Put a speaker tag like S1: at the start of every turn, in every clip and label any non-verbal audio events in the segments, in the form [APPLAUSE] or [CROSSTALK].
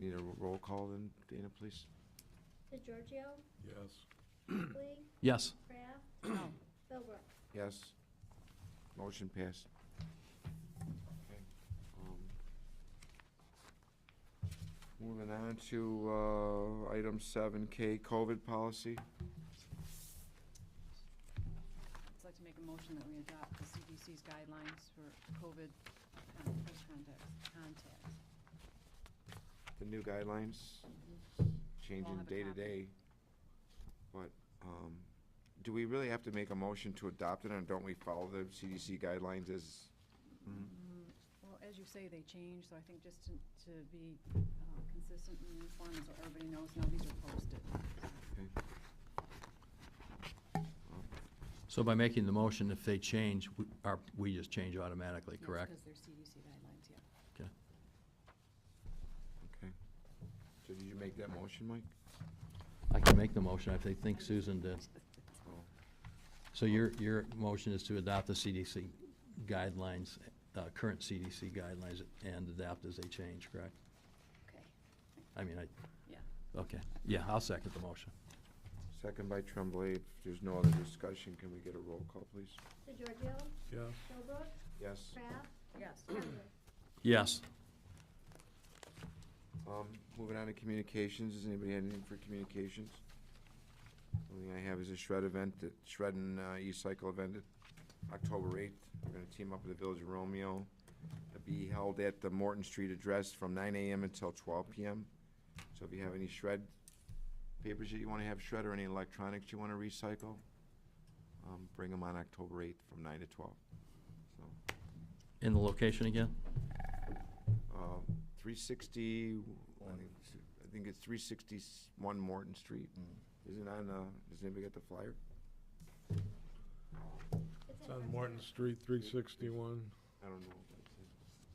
S1: We need a ro- roll call then, Dana, please.
S2: DeGiorgio,
S3: Yes.
S2: Lee,
S4: Yes.
S2: Craft,
S4: [CLEARS THROAT]
S5: No.
S2: Philbrook.
S1: Yes. Motion passed. Okay, um, Moving on to, uh, item seven K, COVID policy.
S5: I'd like to make a motion that we adopt the CDC's guidelines for COVID con- close contacts, contacts.
S1: the new guidelines, changing
S5: have a
S1: day to
S5: copy.
S1: day. But, um, do we really have to make a motion to adopt it, and don't we follow the CDC guidelines as?
S4: Mm-hmm.
S5: Mm, Well, as you say, they change, so I think just to, to be uh, consistent and uniform, so everybody knows, now these are posted.
S1: Okay.
S4: So by making the motion, if they change, we- our- we just change automatically, correct?
S5: Because they're CDC guidelines, yeah.
S4: Okay.
S1: Okay. So did you make that motion, Mike?
S4: I can make the motion if they think Susan did.
S1: Oh,
S4: So your, your motion is to adopt the CDC guidelines, uh, current CDC guidelines, and adapt as they change, correct?
S5: [LAUGHS] Okay,
S4: I mean, I,
S5: yeah.
S4: okay, yeah, I'll second the motion.
S1: Second by Tremblay. If there's no other discussion, can we get a roll call, please?
S2: DeGiorgio,
S3: Yes.
S2: Philbrook,
S1: Yes.
S2: Craft,
S5: Yes.
S2: Philbrook.
S4: Yes.
S1: Um, moving on to communications, does anybody have anything for communications? Only I have is a shred event, that shred and, uh, e-cycle event at October eighth. We're gonna team up with the Village of Romeo. It'll be held at the Morton Street address from nine AM until twelve PM. So if you have any shred papers that you wanna have shred or any electronics you wanna recycle, um, bring them on October eighth from nine to twelve. So,
S4: In the location again?
S1: uh, three sixty, I think it's three sixty-one Morton Street. Is it on, uh, does anybody get the flyer?
S3: It's
S2: in
S3: on
S2: Hartford.
S3: Morton Street, three sixty-one,
S1: I don't know. if that's it.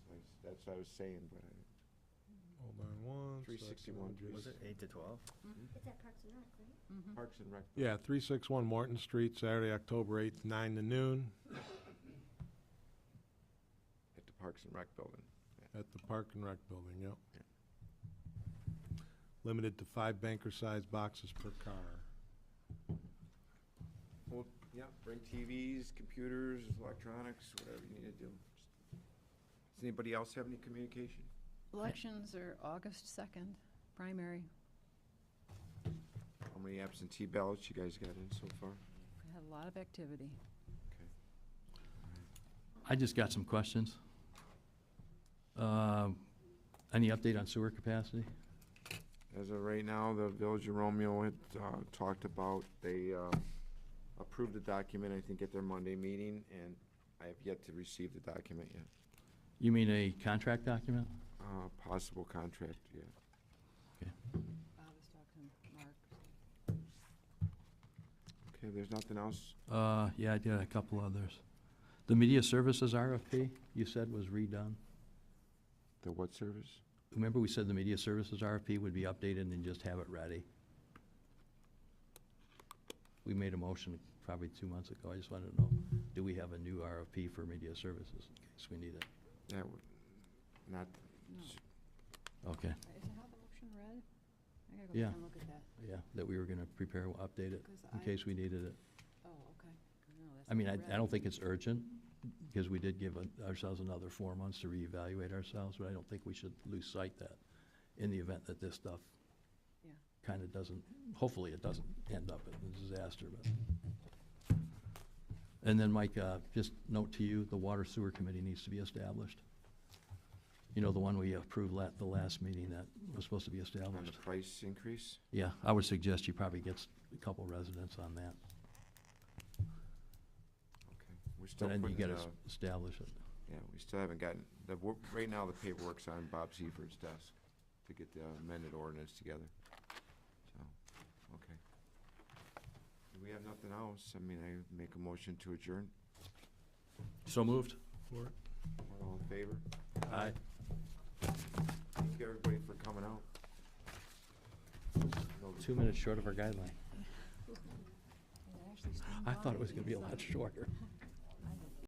S1: That's- That's what I was saying, but I,
S3: hold on one.
S1: 361,
S3: second.
S1: Was it
S6: eight to twelve?
S2: It's at Parks and Rec, right?
S4: Mm-hmm.
S5: Mhm.
S1: Parks and Rec.
S3: Yeah, three sixty-one Morton Street, Saturday, October eighth, nine to noon,
S1: At the Parks and Rec building.
S3: at the Park and Rec Building, yep. Limited to five banker-sized boxes per car.
S1: Well, yeah, bring TVs, computers, electronics, whatever you need to do. Does anybody else have any communication?
S5: Elections are August second, primary.
S1: How many absentee ballots you guys got in so far?
S5: We had a lot of activity.
S4: I just got some questions. Um, Any update on sewer capacity?
S1: As of right now, the Village of Romeo had uh, talked about, they uh, approved the document, I think, at their Monday meeting, and I have yet to receive the document yet.
S4: You mean a contract document?
S1: Uh, Possible contract, yeah.
S5: Bob was talking to Mark.
S1: Okay, there's nothing else?
S4: Uh, yeah, I did a couple others. The media services RFP, you said was redone.
S1: The what service?
S4: Remember, we said the media services RFP would be updated and just have it ready? We made a motion probably two months ago. I just wanted to know, do we have a new RFP for media services in case we need it?
S1: That would, not,
S5: No.
S4: Okay,
S5: Is it how the motion read? I gotta go
S4: Yeah.
S5: back and look at that,
S4: yeah, that we were gonna prepare, we'll update it
S5: because
S4: in
S5: I,
S4: case we needed it.
S5: oh, okay. No, that's
S4: I mean,
S5: not
S4: I, I
S5: read.
S4: don't think it's urgent, because we did give a- ourselves another four months to reevaluate ourselves, but I don't think we should lose sight that in the event that this stuff
S5: Yeah.
S4: kind of doesn't, hopefully it doesn't end up in a disaster, but. And then, Mike, uh, just note to you, the Water Sewer Committee needs to be established. You know, the one we approved at the last meeting that was supposed to be
S1: on the
S4: established.
S1: price increase?
S4: Yeah, I would suggest you probably get s- a couple residents on that,
S1: Okay, We're still
S4: but then you
S1: putting,
S4: gotta
S1: uh,
S4: s- establish it.
S1: yeah, we still haven't gotten, the, wor- right now, the paperwork's on Bob Seiferd's desk to get the amended ordinance together. So, okay. If we have nothing else, I mean, I make a motion to adjourn.
S4: So moved.
S1: All in favor?
S4: Aye.
S1: Thank you, everybody, for coming out.
S4: Two minutes short of our guideline.
S5: It actually
S4: I
S5: streamlined
S4: thought it was gonna be a
S5: because
S4: lot
S5: I-
S4: shorter.